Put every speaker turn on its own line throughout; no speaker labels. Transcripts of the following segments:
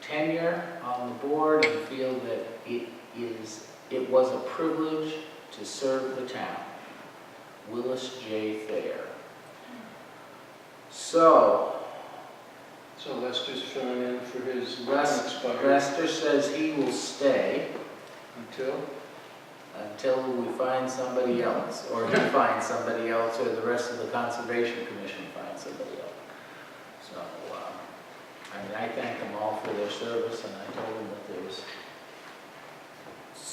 tenure on the board and feel that it is, it was a privilege to serve the town. Willis J. Thayer. So,
So Lester's filling in for his
Les-
unexpired
Lester says he will stay
until,
until we find somebody else, or he finds somebody else, or the rest of the Conservation Commission finds somebody else. So, um, I mean, I thank them all for their service, and I told them that there was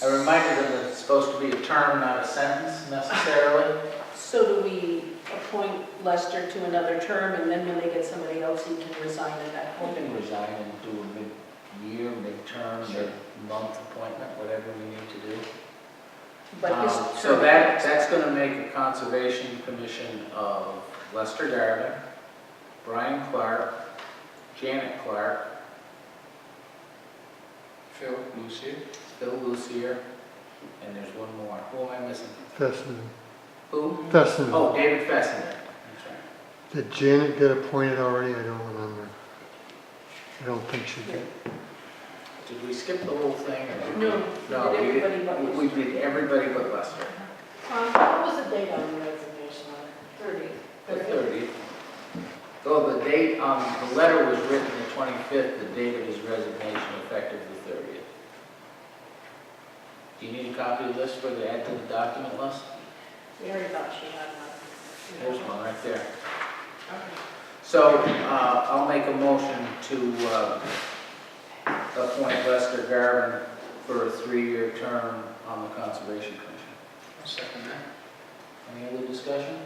I reminded them that it's supposed to be a term, not a sentence necessarily.
So do we appoint Lester to another term, and then when they get somebody else, he can resign at that
We
point?
can resign and do a mid-year, mid-term,
Sure.
mid-month appointment, whatever we need to do.
But his
Um, So
term-
that, that's going to make a conservation commission of Lester Darvin, Brian Clark, Janet Clark,
Phil, Lucy,
Phil Lucier, and there's one more. Who am I missing?
Fessenden.
Who?
Fessenden.
Oh, David Fessenden. That's right.
Did Janet get appointed already? I don't remember. I don't think she did.
Did we skip the whole thing? or did we-
No,
No,
we
we
did everybody but
did, we
Lester.
did everybody but Lester.
Um, What was the date on the resignation letter?
The
30?
30th. Though the date, um, the letter was written the 25th, the date of his resignation effective the 30th. Do you need a copy of this for the add to the document list?
Mary thought she had one.
There's one right there.
Okay.
So uh, I'll make a motion to uh, appoint Lester Garvin for a three-year term on the Conservation Commission.
second that.
Any other discussion?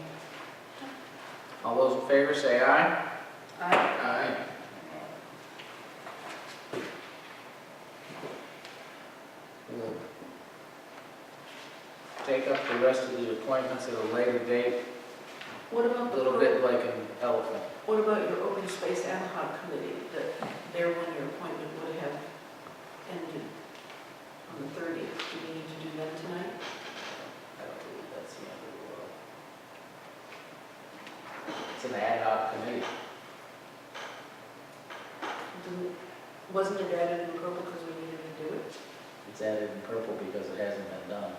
All those in favor say aye.
I-
Aye.
We'll Take up the rest of the appointments at a later date,
What
a
about the,
little bit like an elephant.
what about your open space ad hoc committee, that their one-year appointment would have ended on the 30th? Do we need to do that tonight?
I don't believe that's the end of the world. It's an ad hoc committee.
Didn't- Wasn't it added in purple because we needed to do it? Oh,
It's added in purple because it hasn't been done.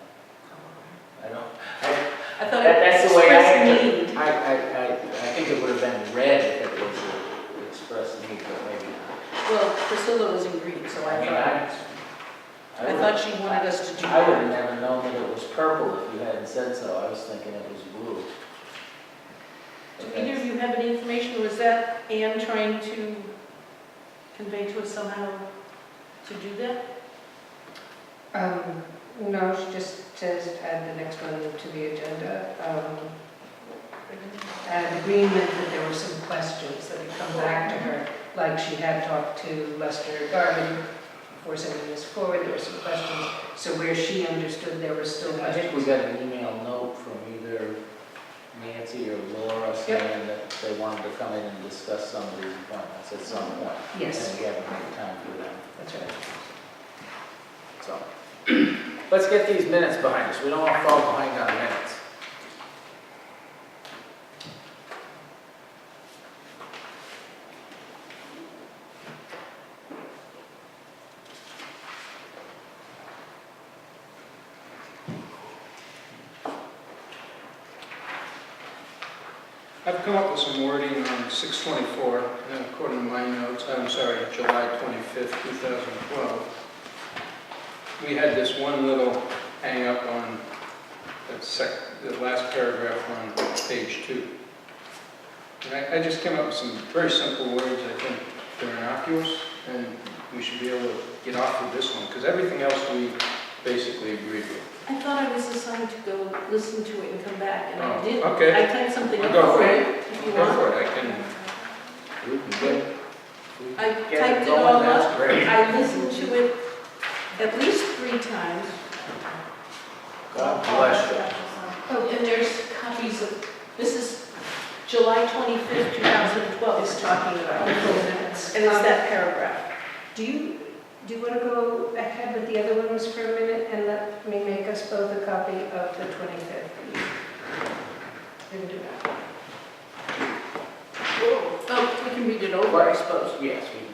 I don't,
I thought
That-
it
that's the way I
expressed need.
I, I, I, I think it would have been red if it was a express need, but maybe not.
Well, Priscilla was in green, so
I
I
mean,
thought,
I,
I thought she wanted us to do
I would have
that.
never known that it was purple if you hadn't said so. I was thinking it was blue.
Do
But
either
that's-
of you have any information, or was that Anne trying to convey to us somehow to do that?
Um, no, she just says add the next one to the agenda. Um, An agreement that there were some questions that had come back to her, like she had talked to Lester Garvin before sending this forward, there were some questions. So where she understood there were still
I think we
questions.
got an email note from either Nancy or Laura saying that they wanted to come in and discuss some of these appointments at some point.
Yes,
And we haven't had time for them,
that's right.
so. Let's get these minutes behind us. We don't want to fall behind on minutes.
I've come up with some wording on 624, uh, according to my notes, I'm sorry, July 25th, 2012. We had this one little hang-up on that sec, the last paragraph on page two. And I, I just came up with some very simple words, I think they're innocuous, and we should be able to get off of this one, because everything else we basically agreed with.
I thought I was assigned to go listen to it and come back, and I
Oh,
did.
okay.
I typed something
Well,
up
go for
for
it.
you, if you
Go
want.
for it, I can,
We can get- we
I
can get
typed it
going,
all
that's
up,
great.
I listened to it at least three times.
God bless you.
Oh, and there's copies of, this is July 25th, 2012, is talking about. And it's that paragraph.
Do you, do you want to go ahead with the other ones for a minute and let me make us both a copy of the 25th? We can do that.
Oh, we can read it over, I suppose.
Yes, we can.